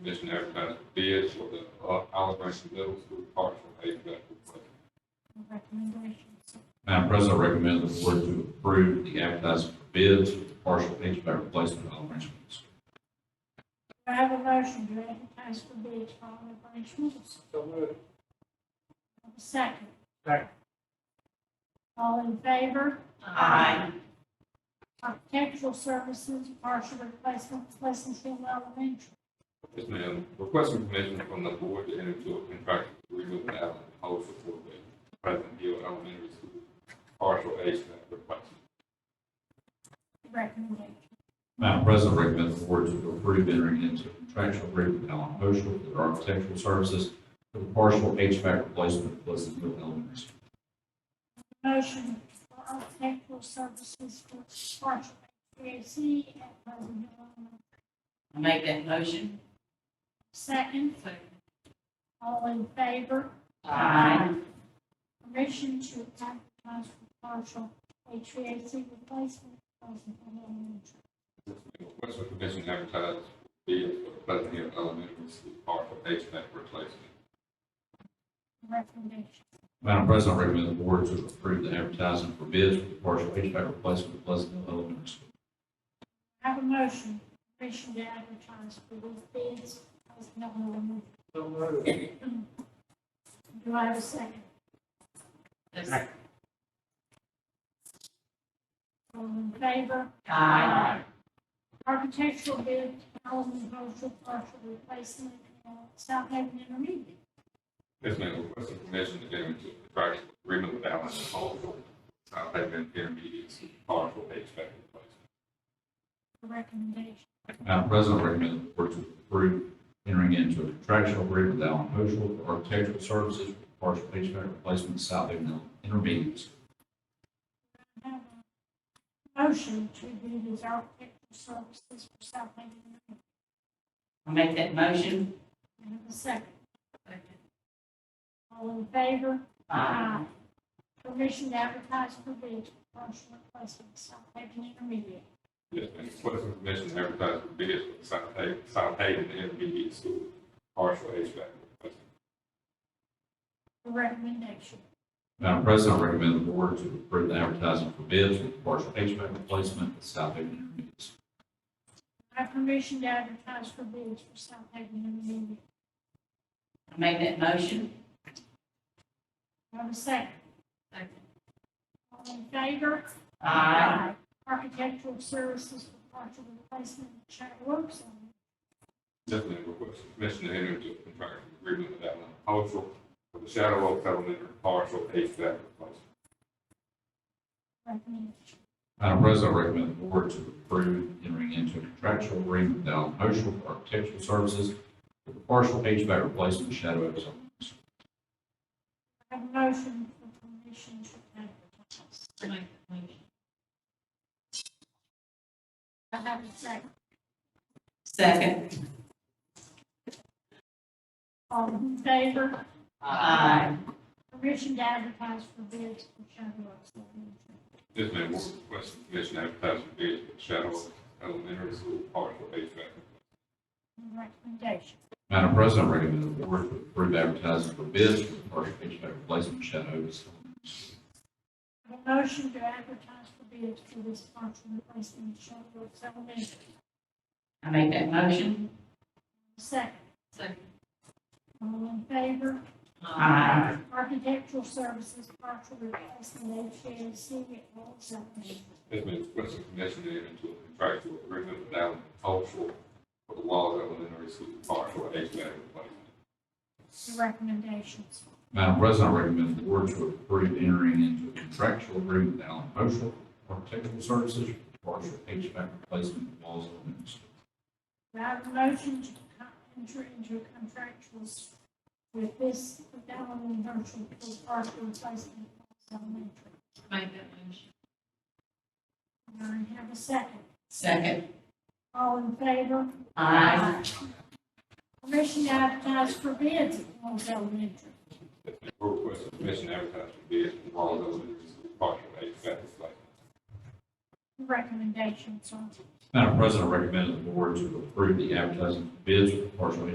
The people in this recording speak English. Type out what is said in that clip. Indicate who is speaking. Speaker 1: commission advertised for bids for the uh, Olive Branch Middle School partial paving backfill project.
Speaker 2: recommendations.
Speaker 3: Madam President, I recommend the board to approve the advertising for bids for the partial HVAC replacement at Olive Branch Middle School.
Speaker 2: Do I have a motion to advertise for bids for Olive Branch Middle School?
Speaker 4: So moved.
Speaker 2: Have a Second.
Speaker 4: Second.
Speaker 2: All in favor?
Speaker 5: Aye.
Speaker 2: Architectural Services, partial replacement of Pleasant Hill Elementary.
Speaker 1: Yes, ma'am. Requesting permission from the board to enter into a contractual agreement with Allen Hope for the President Hill Elementary School partial HVAC replacement.
Speaker 2: Recommendation.
Speaker 3: Madam President, I recommend the board to approve entering into a contractual agreement with Allen Moschel for their architectural services for the partial HVAC replacement at Pleasant Hill Elementary School.
Speaker 2: Motion for architectural services for partial HVAC at Pleasant Hill Elementary.
Speaker 5: I make that motion.
Speaker 2: Second, all in favor?
Speaker 5: Aye.
Speaker 2: Permission to advertise for partial HVAC replacement at Pleasant Hill Elementary.
Speaker 1: Request for permission to advertise bids for the Pleasant Hill Elementary School partial HVAC replacement.
Speaker 2: Recommendation.
Speaker 3: Madam President, I recommend the board to approve the advertising for bids for the partial HVAC replacement at Pleasant Hill Elementary School.
Speaker 2: Have a motion, permission to advertise for these bids, Pleasant Hill Elementary.
Speaker 4: So moved.
Speaker 2: Do I have a second?
Speaker 5: Yes.
Speaker 2: All in favor?
Speaker 5: Aye.
Speaker 2: Architectural bid, Allen Cultural Partial Replacement, uh, South Haven Intermediate.
Speaker 1: Yes, ma'am. Request for permission to enter into a contractual agreement with Allen Hope for uh, South Haven Intermediate School partial HVAC replacement.
Speaker 2: Recommendation.
Speaker 3: Madam President, I recommend the board to approve entering into a contractual agreement with Allen Moschel for architectural services for the partial HVAC replacement at South Haven Intermediate School.
Speaker 2: Have a Motion to do these architectural services for South Haven Intermediate.
Speaker 5: I make that motion.
Speaker 2: And have a second. All in favor?
Speaker 5: Aye.
Speaker 2: Permission to advertise for bid, partial replacement, South Haven Intermediate.
Speaker 1: Yes, ma'am. Request for permission to advertise for bids for the South Haven, South Haven Intermediate School partial HVAC replacement.
Speaker 2: Recommendation.
Speaker 3: Madam President, I recommend the board to approve the advertising for bids for the partial HVAC replacement at South Haven Intermediate. School.
Speaker 2: I have permission to advertise for bids for South Haven Intermediate.
Speaker 5: I make that motion.
Speaker 2: Have a second. All in favor?
Speaker 5: Aye.
Speaker 2: Architectural services for partial replacement of Chattanooga Works.
Speaker 1: Definitely request permission to enter into a contractual agreement with Allen Cultural for the Shadow Oak Elementary partial HVAC replacement.
Speaker 2: Recommendation.
Speaker 3: Madam President, I recommend the board to approve entering into a contractual agreement with Allen Moschel for architectural services for the partial HVAC replacement at Shadow Oaks. Elementary School.
Speaker 2: I Have a motion for permission to advertise. I have a second.
Speaker 5: Second.
Speaker 2: All in favor?
Speaker 5: Aye.
Speaker 2: Permission to advertise for bids for Chattanooga Works.
Speaker 1: Yes, ma'am, we're requesting permission to advertise for bids for the Shadow Oak Elementary School partial HVAC.
Speaker 2: Recommendation.
Speaker 3: Madam President, I recommend the board to approve advertising for bids for the partial HVAC replacement at Shadow Oaks. Elementary School.
Speaker 2: I have a motion to advertise for bids for this partial replacement of Chattanooga Works Elementary.
Speaker 5: I make that motion.
Speaker 2: Second.
Speaker 5: Second.
Speaker 2: All in favor?
Speaker 5: Aye.
Speaker 2: Architectural services partial replacement of HVAC at Wells Elementary.
Speaker 1: Yes, ma'am, requesting permission to enter into a contractual agreement with Allen Cultural for the Walls Elementary School partial HVAC replacement.
Speaker 2: The recommendations.
Speaker 3: Madam President, I recommend the board to approve entering into a contractual agreement with Allen Moschel for architectural services for partial HVAC replacement at Walls Elementary School.
Speaker 2: Do I have a motion to con- enter into contractuals with this Allen Virtual Pool partial replacement at Wells Elementary?
Speaker 5: Make that motion.
Speaker 2: And I have a second.
Speaker 5: Second.
Speaker 2: All in favor?
Speaker 5: Aye.
Speaker 2: Permission to advertise for bids at Wells Elementary.
Speaker 1: Yes, ma'am, we're requesting permission to advertise for bids for the Walls Elementary School partial HVAC replacement.
Speaker 2: The Recommendations on
Speaker 3: Madam President, I recommend the board to approve the advertising for bids for partial